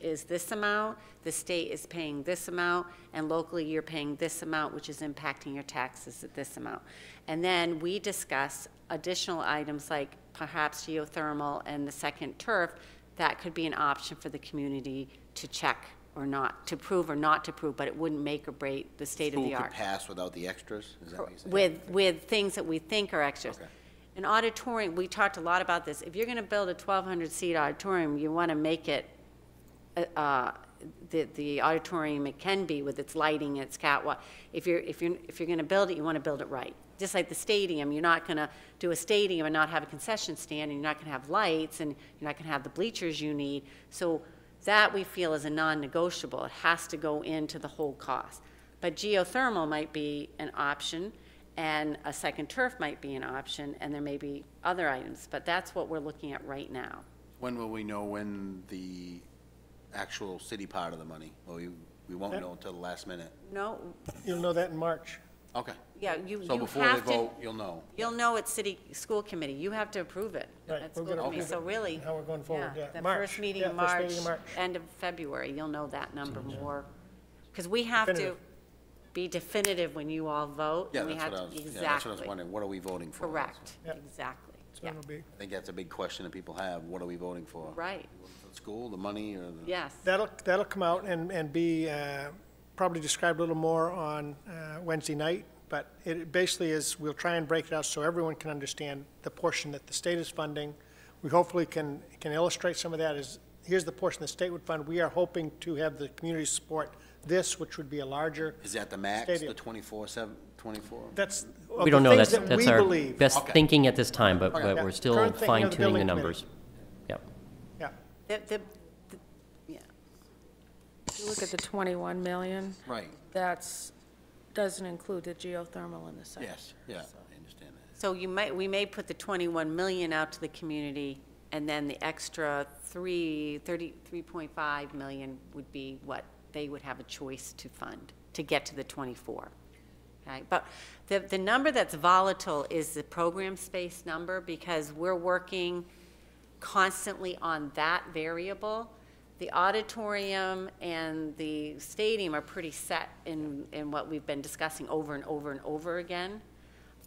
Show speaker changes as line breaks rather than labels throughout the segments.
is this amount, the state is paying this amount, and locally you're paying this amount, which is impacting your taxes at this amount. And then we discuss additional items like perhaps geothermal and the second turf, that could be an option for the community to check or not, to prove or not to prove, but it wouldn't make or break the state of the
School
art.
could pass without the extras, is that what you're saying?
With, with things that we think are extras.
Okay.
An auditorium, we talked a lot about this, if you're gonna build a twelve hundred seat auditorium, you wanna make it, uh, uh, the, the auditorium it can be with its lighting, its catwalk. If you're, if you're, if you're gonna build it, you wanna build it right. Just like the stadium, you're not gonna do a stadium and not have a concession stand, and you're not gonna have lights, and you're not gonna have the bleachers you need. So that we feel is a non-negotiable, it has to go into the whole cost. But geothermal might be an option, and a second turf might be an option, and there may be other items, but that's what we're looking at right now.
When will we know when the actual city part of the money? Well, we, we won't know until the last minute.
No,
You'll know that in March.
Okay.
yeah, you,
So
you
before they
have to,
vote, you'll know.
you'll know it's city, school committee, you have to approve it
Right,
at school
we're gonna
committee,
approve
so
it,
really.
how we're going forward, yeah.
The
March,
first meeting
yeah,
in
first
March,
meeting in March.
end of February, you'll know that number more. Because we have to
Definitive.
be definitive when you all vote.
Yeah,
and we
that's what
have
I
to-
was, yeah,
Exactly.
that's what I was wondering, what are we voting for?
Correct,
Yeah.
exactly,
So
yeah,
it'll be,
I think that's a big question that people have, what are we voting for?
right,
The School, the money, or the?
yes.
that'll, that'll come out and, and be uh, probably described a little more on uh, Wednesday night, but it basically is, we'll try and break it out so everyone can understand the portion that the state is funding. We hopefully can, can illustrate some of that is, here's the portion the state would fund. We are hoping to have the community support this, which would be a larger.
Is that the max, the
Stadium.
twenty-four, seven, twenty-four?
That's. of
We
the
don't know,
things
that's,
that
that's
we
our
believe.
best
Okay.
thinking at this time, but, but
Yeah.
we're still
Current thinking of the
fine tuning the
building
numbers. Yep.
Yeah.
The, the, the- yeah,
If you look at the 21 million,
Right,
that's, doesn't include the geothermal in the site.
yes, yeah, I understand that.
so you might, we may put the 21 million out to the community, and then the extra 3, 30, 3.5 million would be what they would have a choice to fund, to get to the 24. Okay, but the, the number that's volatile is the program space number, because we're working constantly on that variable. The auditorium and the stadium are pretty set in, in what we've been discussing over and over and over again.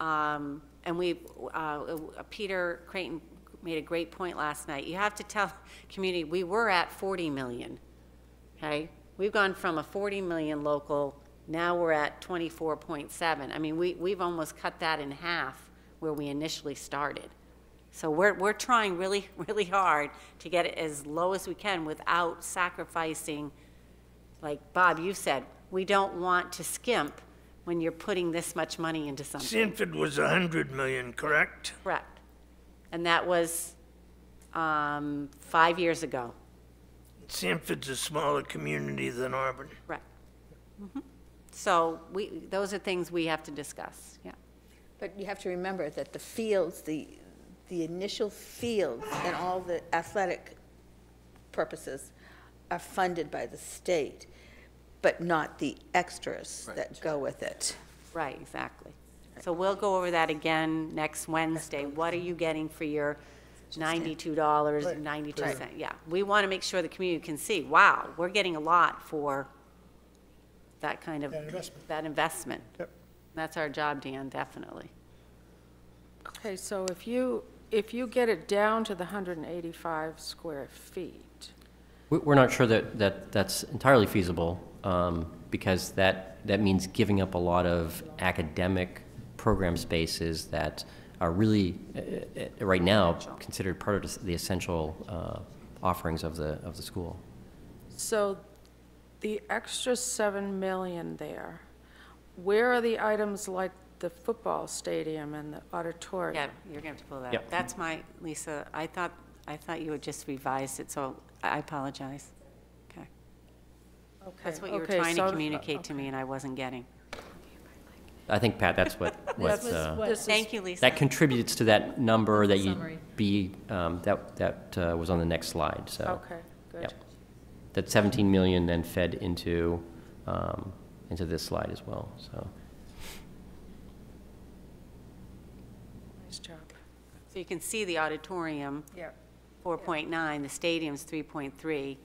Um, And we, uh, Peter Creighton made a great point last night. You have to tell community, we were at 40 million, okay? We've gone from a 40 million local, now we're at 24.7. I mean, we, we've almost cut that in half where we initially started. So we're, we're trying really, really hard to get it as low as we can without sacrificing, like Bob, you said, we don't want to skimp when you're putting this much money into something.
Sanford was a hundred million, correct?
Correct. And that was um, five years ago.
Sanford's a smaller community than Auburn.
Correct. Mhm. So we, those are things we have to discuss, yeah.
But you have to remember that the fields, the, the initial fields and all the athletic purposes are funded by the state, but not the extras that go with it.
Right, exactly. So we'll go over that again next Wednesday. What are you getting for your ninety-two dollars and ninety-two cent? Yeah, we want to make sure the community can see, wow, we're getting a lot for that kind of,
That investment.
that investment.
Yep.
That's our job, Dan, definitely.
Okay, so if you, if you get it down to the 185 square feet,
We- We're not sure that, that that's entirely feasible, um, because that, that means giving up a lot of academic program spaces that are really, uh, uh, right now, considered part of the essential uh, offerings of the, of the school.
so the extra 7 million there, where are the items like the football stadium and the auditorium?
Yeah, you're gonna have to pull that up.
Yep.
That's my, Lisa, I thought, I thought you had just revised it, so I apologize. Okay. That's what you were
Okay,
trying to
so-
communicate to me, and I wasn't getting.
I think, Pat, that's what, what, uh,
This is-
Thank you, Lisa.
that contributes to that number that you be, um, that, that uh, was on the next slide, so.
Okay, good.
Yep. That 17 million then fed into, um, into this slide as well, so.
Nice job.
So you can see the auditorium,
Yeah.
4.9, the stadium's 3.3,